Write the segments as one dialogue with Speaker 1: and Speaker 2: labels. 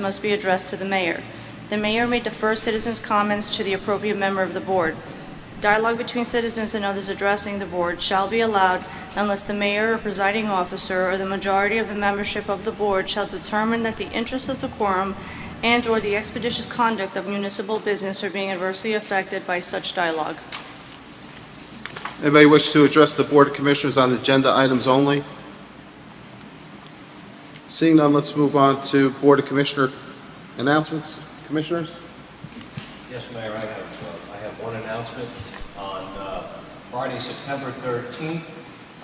Speaker 1: must be addressed to the mayor. The mayor may defer citizens' comments to the appropriate member of the board. Dialogue between citizens and others addressing the board shall be allowed unless the mayor or presiding officer or the majority of the membership of the board shall determine that the interests of decorum and/or the expeditious conduct of municipal business are being adversely affected by such dialogue.
Speaker 2: Anybody wish to address the Board of Commissioners on agenda items only? Seeing none, let's move on to Board of Commissioner announcements. Commissioners?
Speaker 3: Yes, Mayor, I have, uh, I have one announcement. On uh, Friday, September 13th,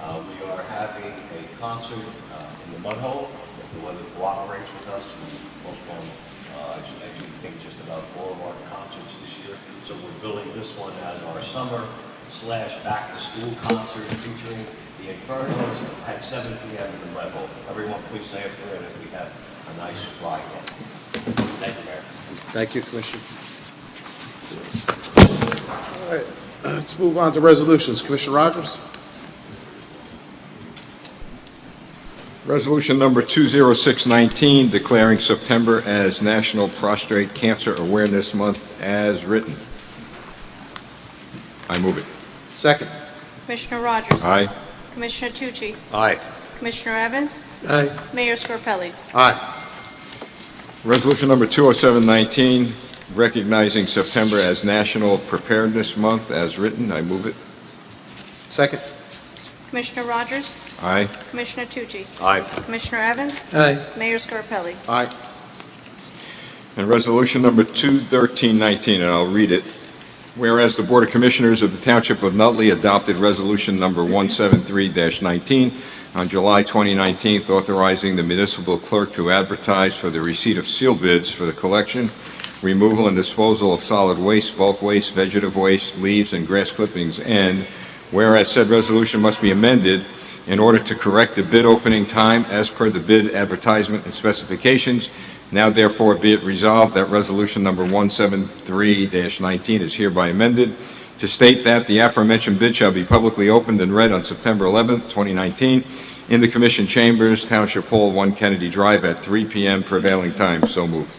Speaker 3: uh, we are having a concert uh, in the Mud Hole. If the weather cooperates with us, we postponed, uh, actually, I think just about four of our concerts this year. So we're billing this one as our summer slash back-to-school concert featuring the Infernos at 7 PM in the Mud Hole. Everyone, please stay up for it, and we have a nice ride. Thank you, Mayor.
Speaker 2: Thank you, Commissioner. All right, let's move on to resolutions. Commissioner Rogers?
Speaker 4: Resolution number 20619, declaring September as National Prostate Cancer Awareness Month as written. I move it.
Speaker 2: Second.
Speaker 1: Commissioner Rogers?
Speaker 4: Aye.
Speaker 1: Commissioner Tucci?
Speaker 2: Aye.
Speaker 1: Commissioner Evans?
Speaker 2: Aye.
Speaker 1: Mayor Scarpelli?
Speaker 2: Aye.
Speaker 4: Resolution number 20719, recognizing September as National Preparedness Month as written. I move it.
Speaker 2: Second.
Speaker 1: Commissioner Rogers?
Speaker 4: Aye.
Speaker 1: Commissioner Tucci?
Speaker 2: Aye.
Speaker 1: Commissioner Evans?
Speaker 5: Aye,
Speaker 1: Mayor Scarpelli?
Speaker 2: Aye.
Speaker 4: And resolution number 21319, and I'll read it. Whereas the Board of Commissioners of the Township of Nutley adopted resolution number 173-19 on July 2019, authorizing the municipal clerk to advertise for the receipt of seal bids for the collection, removal, and disposal of solid waste, bulk waste, vegetative waste, leaves, and grass clippings, and whereas said resolution must be amended in order to correct the bid opening time as per the bid advertisement and specifications now therefore be it resolved that resolution number 173-19 is hereby amended to state that the aforementioned bid shall be publicly opened and read on September 11th, 2019, in the Commission Chambers, Township Hall, 1 Kennedy Drive, at 3 p.m. prevailing time. So moved.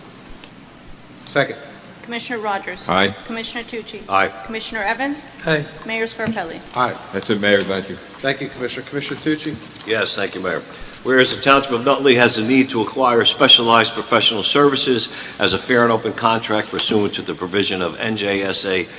Speaker 2: Second.
Speaker 1: Commissioner Rogers?
Speaker 4: Aye.
Speaker 1: Commissioner Tucci?
Speaker 2: Aye.
Speaker 1: Commissioner Evans?
Speaker 5: aye,
Speaker 1: Mayor Scarpelli?
Speaker 2: Aye.
Speaker 4: That's it, Mayor. Thank you.
Speaker 2: Thank you, Commissioner. Commissioner Tucci?
Speaker 3: Yes, thank you, Mayor. Whereas the Township of Nutley has a need to acquire specialized professional services as a fair and open contract pursuant to the provision of NJSA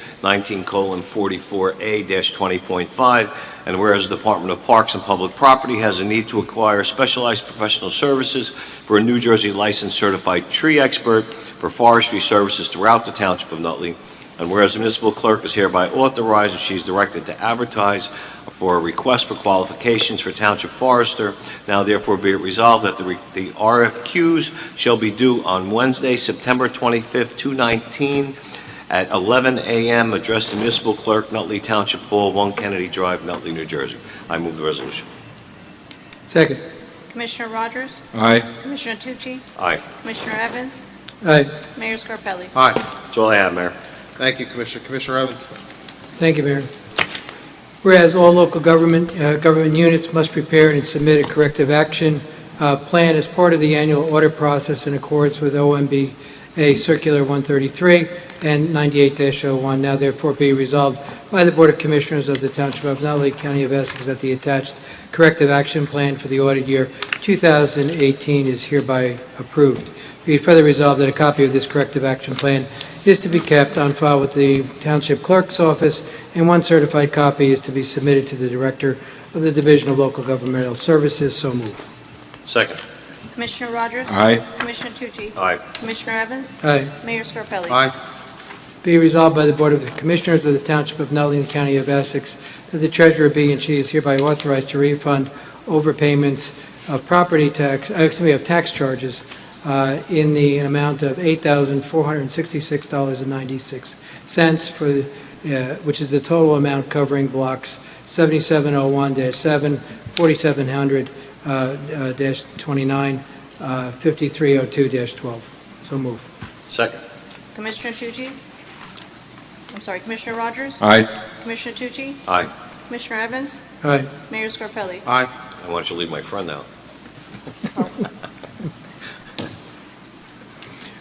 Speaker 3: 19:44A-20.5, and whereas the Department of Parks and Public Property has a need to acquire specialized professional services for a New Jersey licensed certified tree expert for forestry services throughout the Township of Nutley, and whereas the municipal clerk is hereby authorized and she's directed to advertise for a request for qualifications for Township Forester. Now therefore be it resolved that the re- the RFQs shall be due on Wednesday, September 25th, 2019, at 11 a.m., addressed to Municipal Clerk, Nutley Township Hall, 1 Kennedy Drive, Nutley, New Jersey. I move the resolution.
Speaker 5: second,
Speaker 1: Commissioner Rogers?
Speaker 4: Aye.
Speaker 1: Commissioner Tucci?
Speaker 3: Aye.
Speaker 1: Commissioner Evans?
Speaker 5: aye.
Speaker 1: Mayor Scarpelli?
Speaker 2: Aye.
Speaker 3: That's all I have, Mayor.
Speaker 2: Thank you, Commissioner. Commissioner Evans?
Speaker 5: Thank you, Mayor. Whereas all local government, uh, government units must prepare and submit a corrective action uh, plan as part of the annual audit process in accordance with OMBA Circular 133 and 98-01, now therefore be resolved by the Board of Commissioners of the Township of Nutley, County of Essex, that the attached corrective action plan for the audit year 2018 is hereby approved. Be it further resolved that a copy of this corrective action plan is to be kept on file with the Township Clerk's Office, and one certified copy is to be submitted to the Director of the Division of Local Governmental Services. So moved.
Speaker 3: Second.
Speaker 1: Commissioner Rogers?
Speaker 4: Aye.
Speaker 1: Commissioner Tucci?
Speaker 3: Aye.
Speaker 1: Commissioner Evans?
Speaker 5: Aye.
Speaker 1: Mayor Scarpelli?
Speaker 2: Aye.
Speaker 5: Be resolved by the Board of Commissioners of the Township of Nutley and the County of Essex that the Treasurer be and she is hereby authorized to refund overpayments of property tax, uh, excuse me, of tax charges uh, in the amount of $8,466.96 for, uh, which is the total amount covering blocks 7701-7, uh, 4700-29, uh, 5302-12. So moved.
Speaker 3: Second.
Speaker 1: Commissioner Tucci? I'm sorry, Commissioner Rogers?
Speaker 4: Aye.
Speaker 1: Commissioner Tucci?
Speaker 3: Aye.
Speaker 1: Commissioner Evans?
Speaker 5: All right.
Speaker 1: Mayor Scarpelli?
Speaker 2: Aye.
Speaker 3: I want you to leave my friend out.